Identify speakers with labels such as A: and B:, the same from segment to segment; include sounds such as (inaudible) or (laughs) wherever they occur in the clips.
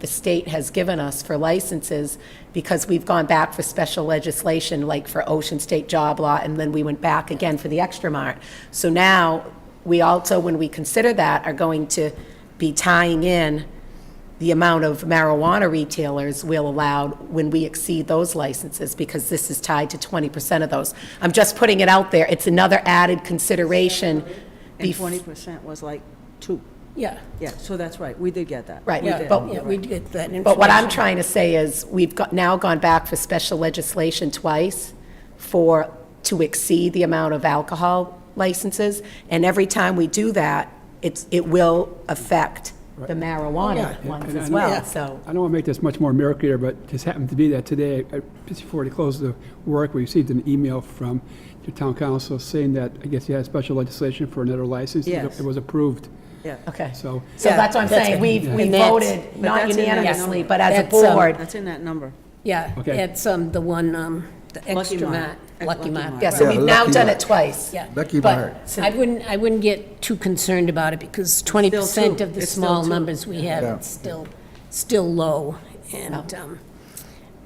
A: the state has given us for licenses because we've gone back for special legislation, like for Ocean State Job Law, and then we went back again for the Extra Mart. So now, we also, when we consider that, are going to be tying in the amount of marijuana retailers will allow when we exceed those licenses, because this is tied to 20% of those. I'm just putting it out there. It's another added consideration.
B: And
A: bef-
B: twenty percent was like two.
C: Yeah,
B: Yeah, so that's right, we did get that.
A: Right,
B: We
A: yeah,
B: did.
A: but-
C: yeah, we get that information.
A: But what I'm trying to say is, we've got, now gone back for special legislation twice for, to exceed the amount of alcohol licenses, and every time we do that, it's, it will affect the marijuana ones
D: And I
A: as
D: know-
A: well, so.
D: I don't want to make this much more murkier, but just happened to be that today, I- just before we closed the work, we received an email from the town council saying that, I guess you had special legislation for another license. It was-
B: Yes.
D: It was approved,
B: Yeah.
A: Okay.
D: so.
A: So
C: Yeah,
A: that's what I'm
C: that's
A: saying,
C: it.
A: we, we
C: And that's-
A: voted,
B: but
A: not
B: that's in that
A: unanimously,
B: number.
A: but as a
C: That's, um,
A: board.
B: That's in that number.
C: Yeah,
D: Okay.
C: it's um, the one, um, the
B: Lucky
C: extra
B: Mart.
C: mat, Lucky
B: Lucky
C: mat.
B: Mart.
A: Yeah, so
E: Yeah,
A: we've now
E: lucky
A: done
E: Mart.
A: it twice.
C: Yeah.
E: Lucky Mart.
C: But I wouldn't, I wouldn't get too concerned about it because twenty percent
B: two.
C: of the
B: It's still
C: small
B: two.
C: numbers we have,
E: Yeah.
C: it's still, still low. And, um,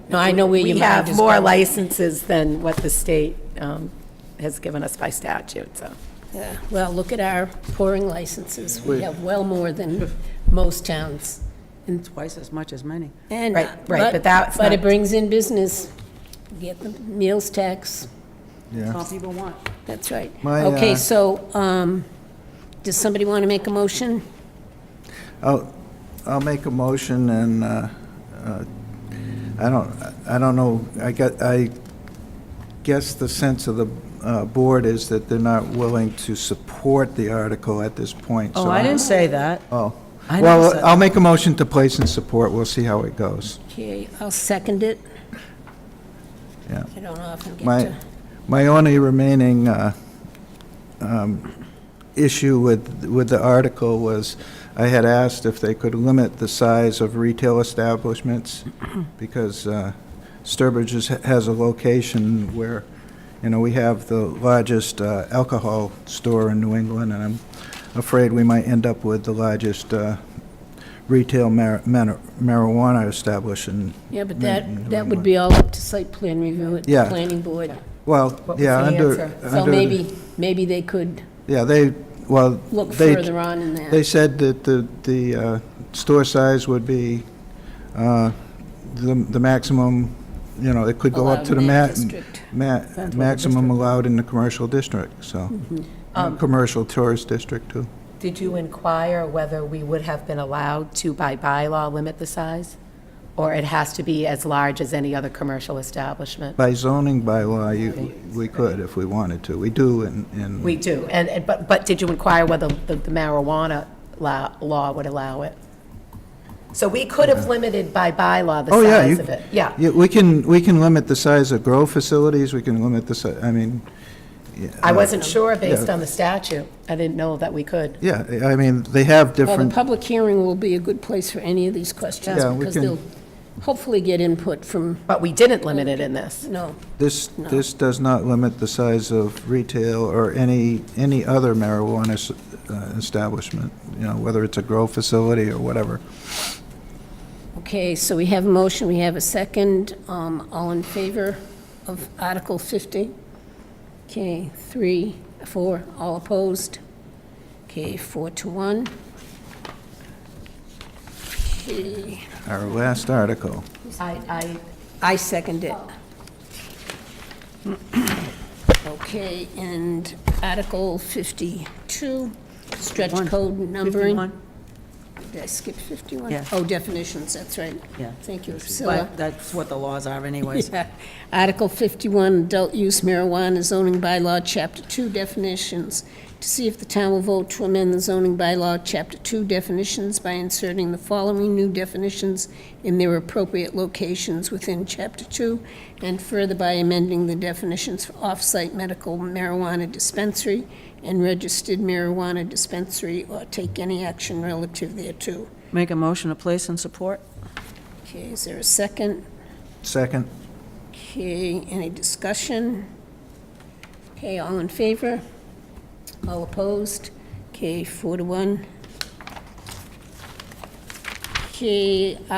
C: no, I know where your
A: We
C: mind
A: have
C: is
A: more
C: going.
A: licenses than what the state um, has given us by statute, so.
C: Yeah, Well, look at our pouring licenses. We have well more than most towns. And,
B: Twice as much as many.
C: and.
A: Right, right, but that's
C: But
A: not-
C: it brings in business. Get the meals tax.
E: Yeah.
B: All people want.
C: That's right.
E: My,
C: Okay,
E: uh,
C: so, um, does somebody want to make a motion?
E: I'll, I'll make a motion and, uh, uh, I don't, I don't know, I got, I guess the sense of the uh, board is that they're not willing to support the article at this point.
B: Oh,
E: so
B: I
E: I'm-
B: didn't say that.
E: Oh.
B: I never said
E: Well,
B: that.
E: I'll make a motion to place and support. We'll see how it goes.
C: Okay, I'll second it.
E: Yeah.
C: I don't often get
E: My,
C: to.
E: my only remaining uh, um, issue with, with the article was, I had asked if they could limit the size of retail establishments, because uh, Sturbridge is- has a location where, you know, we have the largest uh, alcohol store in New England, and I'm afraid we might end up with the largest uh, retail mar- mar- marijuana establishment.
C: Yeah, but
E: in New
C: that, that would
E: England.
C: be all up to site plan review at the
E: Yeah.
C: planning board.
E: Well,
A: was
E: yeah,
A: the
E: under.
A: answer?
C: So
E: under-
C: maybe, maybe they could
E: Yeah, they, well,
C: look
E: they-
C: further on in that.
E: They said that the, the uh, store size would be uh, the the maximum, you know, it could go up
C: Allowed
E: to the
C: in
E: ma-
C: that district. Mm-hmm.
E: ma- maximum allowed in the commercial district, so.
C: Um,
E: And Commercial tourist district, too.
A: Did you inquire whether we would have been allowed to, by bylaw, limit the size? Or it has to be as large as any other commercial establishment?
E: By zoning bylaw, you- we could if we wanted to. We do in, in.
A: We do, and, and- but, but did you inquire whether the the marijuana la- law would allow it? So we could have limited by bylaw the
E: Oh, yeah,
A: size
E: you-
A: of it. Yeah,
E: Yeah, we can, we can limit the size of grow facilities, we can limit the, si- I mean,
A: I wasn't sure based
E: yeah.
A: on the statute. I didn't know that we could.
E: yeah, I mean, they have
C: Well, the
E: different,
C: public hearing will be a good place for any of these questions
E: Yeah, we
C: because
E: can-
C: they'll hopefully get input from,
A: But we didn't limit it in this.
C: no,
E: This, this does not limit the size of retail or any, any other marijuana s- uh, establishment, you know, whether it's a grow facility or whatever.
C: Okay, so we have a motion, we have a second. Um, All in favor of Article 50? Okay, three, four, all opposed? Okay, four to one. Okay,
E: Our last article.
A: I, I
C: I
B: (coughs)
C: second it. Okay, and Article 52, stretch
B: One.
C: code numbering.
B: Fifty-one.
C: Did I skip 51?
B: Yeah.
C: Oh, definitions, that's right.
B: Yeah.
C: Thank you, Priscilla.
B: But that's what the laws are anyways.
C: (laughs) Yeah. Article 51, adult use marijuana zoning bylaw, Chapter 2 definitions, to see if the town will vote to amend the zoning bylaw, Chapter 2 definitions by inserting the following new definitions in their appropriate locations within Chapter 2, and further by amending the definitions for off-site medical marijuana dispensary and registered marijuana dispensary, or take any action relative thereto.
B: Make a motion to place and support?
C: Okay, is there a second?
E: Second?
C: Okay, any discussion? Okay, all in favor? All opposed? Okay, four to one. Okay,